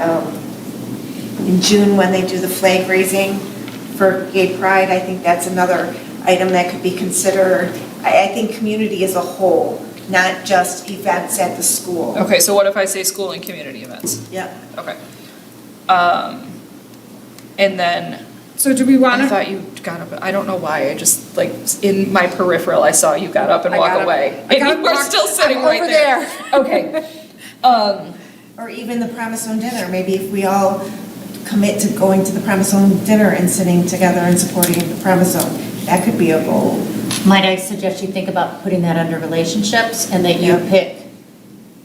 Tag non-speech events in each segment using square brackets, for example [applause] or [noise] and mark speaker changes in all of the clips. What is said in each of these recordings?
Speaker 1: um, in June when they do the flag raising for gay pride, I think that's another item that could be considered. I, I think community as a whole, not just events at the school.
Speaker 2: Okay, so what if I say school and community events?
Speaker 1: Yep.
Speaker 2: Okay. Um, and then,
Speaker 3: So do we
Speaker 2: I
Speaker 3: want to,
Speaker 2: thought you got up, I don't know why, I just, like, in my peripheral, I saw you got up and
Speaker 3: I
Speaker 2: walk
Speaker 3: got up.
Speaker 2: away.
Speaker 3: I got
Speaker 2: And you were
Speaker 3: up,
Speaker 2: still
Speaker 3: I'm
Speaker 2: sitting right
Speaker 3: over
Speaker 2: there. Okay. Um,
Speaker 1: Or even the Promise Own Dinner, maybe if we all commit to going to the Promise Own Dinner and sitting together and supporting the Promise Own, that could be a goal.
Speaker 4: Might I suggest you think about putting that under relationships and that you
Speaker 1: Yeah.
Speaker 4: pick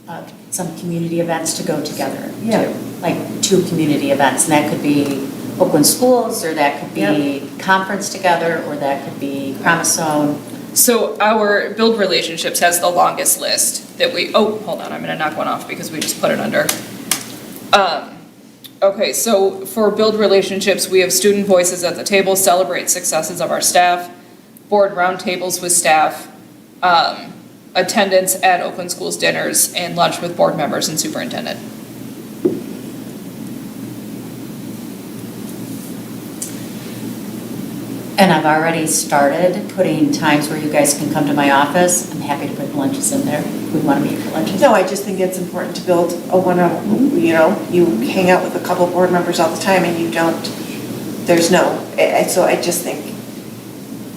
Speaker 4: uh, some community events to go together?
Speaker 1: Yeah.
Speaker 4: to, Like two community events, and that could be Oakland Schools, or that could be conference together, or that could be Promise Zone.
Speaker 2: so our build relationships has the longest list that we, oh, hold on, I'm gonna knock one off because we just put it under. Um, okay, so for build relationships, we have student voices at the table, celebrate successes of our staff, board roundtables with staff, um, attendance at Oakland Schools dinners, and lunch with board members and superintendent.
Speaker 4: And I've already started putting times where you guys can come to my office. I'm happy to put lunches in there. We want to meet for lunches.
Speaker 1: No, I just think it's important to build a one-on, you know, you hang out with a couple board members all the time and you don't, there's no, I- I- so I just think,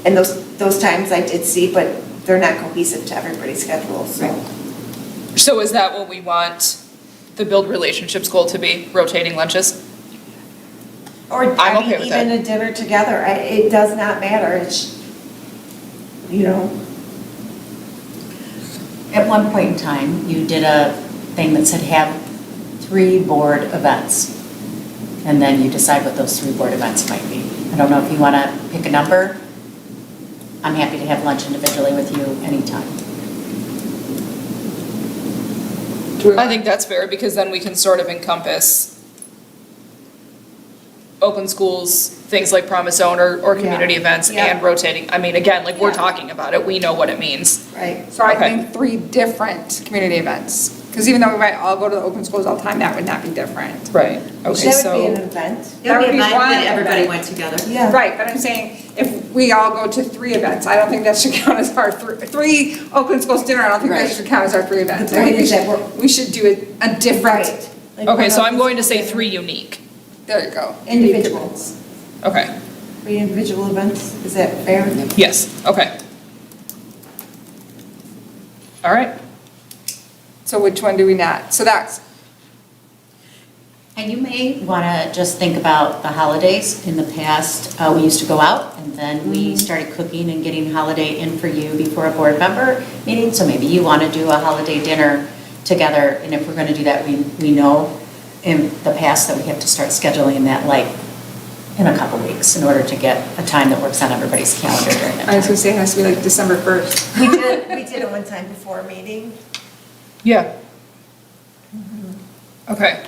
Speaker 1: and those, those times I did see, but they're not cohesive to everybody's schedule, so.
Speaker 2: So is that what we want the build relationships goal to be, rotating lunches?
Speaker 1: Or,
Speaker 2: I'm
Speaker 1: I
Speaker 2: okay
Speaker 1: mean,
Speaker 2: with
Speaker 1: even
Speaker 2: that.
Speaker 1: a dinner together, I- it does not matter, it's, you know,
Speaker 4: At one point in time, you did a thing that said have three board events. And then you decide what those three board events might be. I don't know if you want to pick a number. I'm happy to have lunch individually with you anytime.
Speaker 2: I think that's fair, because then we can sort of encompass open schools, things like Promise Zone or, or community
Speaker 1: Yeah.
Speaker 2: events
Speaker 1: Yeah.
Speaker 2: and rotating, I mean, again, like, we're
Speaker 3: Yeah.
Speaker 2: talking about it, we know what it means.
Speaker 1: right?
Speaker 3: so I
Speaker 2: Okay.
Speaker 3: think three different community events. Because even though we might all go to the open schools all the time, that would not be different.
Speaker 2: Right. Okay,
Speaker 1: That would be an
Speaker 2: so,
Speaker 1: event,
Speaker 3: That would be one event.
Speaker 4: went together.
Speaker 1: yeah.
Speaker 3: Right, but I'm saying if we all go to three events, I don't think that should [laughs] count as our thr- three Oakland Schools dinner. I don't think that
Speaker 4: Right.
Speaker 3: should count as our three events. I think
Speaker 1: point
Speaker 3: we
Speaker 1: is that
Speaker 3: should-
Speaker 1: we're-
Speaker 3: We should do a, a different,
Speaker 1: Right. Like
Speaker 2: okay, so
Speaker 1: one-on-one
Speaker 2: I'm going to say
Speaker 1: dinner.
Speaker 2: three unique,
Speaker 3: there you go.
Speaker 1: Individuals,
Speaker 2: okay,
Speaker 1: three individual events, is that fair?
Speaker 2: yes, okay. All right,
Speaker 3: So which one do we not? So that's,
Speaker 4: And you may want to just think about the holidays. In the past, uh, we used to go out, and then
Speaker 5: Mm-hmm.
Speaker 4: we started cooking and getting holiday in for you before a board member meeting. So maybe you want to do a holiday dinner together, and if we're going to do that, we, we know in the past that we have to start scheduling that like in a couple weeks in order to get a time that works on everybody's calendar during that
Speaker 3: I was
Speaker 4: time.
Speaker 3: gonna say it has to be like December 1st.
Speaker 1: We did, we did it one time before a meeting.
Speaker 2: yeah. Okay.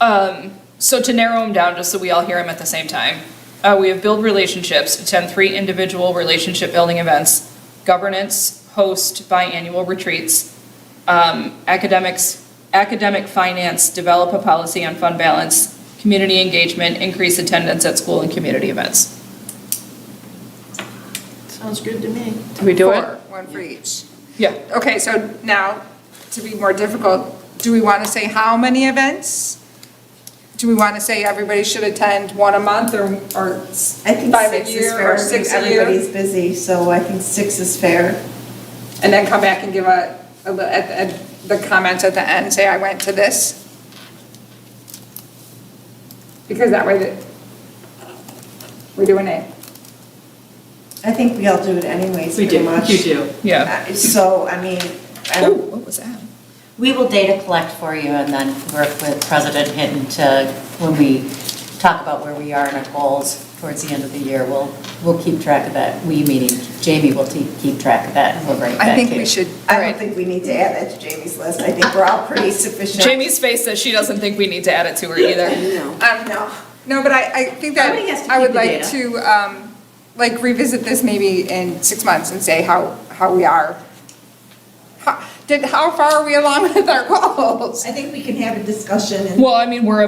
Speaker 2: Um, so to narrow them down, just so we all hear them at the same time, uh, we have build relationships, attend three individual relationship building events, governance, host biannual retreats, um, academics, academic finance, develop a policy on fund balance, community engagement, increase attendance at school and community events.
Speaker 5: Sounds good to me.
Speaker 2: Do we do it?
Speaker 3: Four, One for each.
Speaker 2: Yeah.
Speaker 3: Okay, so now, to be more difficult, do we want to say how many events? Do we want to say everybody should attend one a month or, or s-
Speaker 1: I think
Speaker 3: five a
Speaker 1: six is
Speaker 3: year
Speaker 1: fair,
Speaker 3: or six a year?
Speaker 1: everybody's busy, so I think six is fair.
Speaker 3: And then come back and give a, a li- at, at the comments at the end, say I went to this? Because that way that, we're doing it.
Speaker 1: I think we all do it anyways,
Speaker 5: We
Speaker 1: pretty
Speaker 5: do,
Speaker 1: much.
Speaker 5: you do.
Speaker 2: Yeah.
Speaker 1: Uh, So, I mean, I
Speaker 2: Ooh,
Speaker 1: don't,
Speaker 2: what was that?
Speaker 4: We will data collect for you and then work with President Hinton to, when we talk about where we are in our goals towards the end of the year, we'll, we'll keep track of that. We, meaning Jamie, will te- keep track of that and we'll bring it back to
Speaker 3: I think we
Speaker 4: you.
Speaker 3: should,
Speaker 1: I don't think we need to add that to Jamie's list. I think we're all pretty sufficient.
Speaker 2: Jamie's face says she doesn't think we need to add it to her either.
Speaker 5: No.
Speaker 3: Um, no, no, but I, I think that
Speaker 5: Somebody has to
Speaker 3: I would
Speaker 5: keep the
Speaker 3: like
Speaker 5: data.
Speaker 3: to, um, like revisit this maybe in six months and say how, how we are. How, did, how far are we along [laughs] with our goals?
Speaker 1: I think we can have a discussion and
Speaker 2: Well, I mean, we're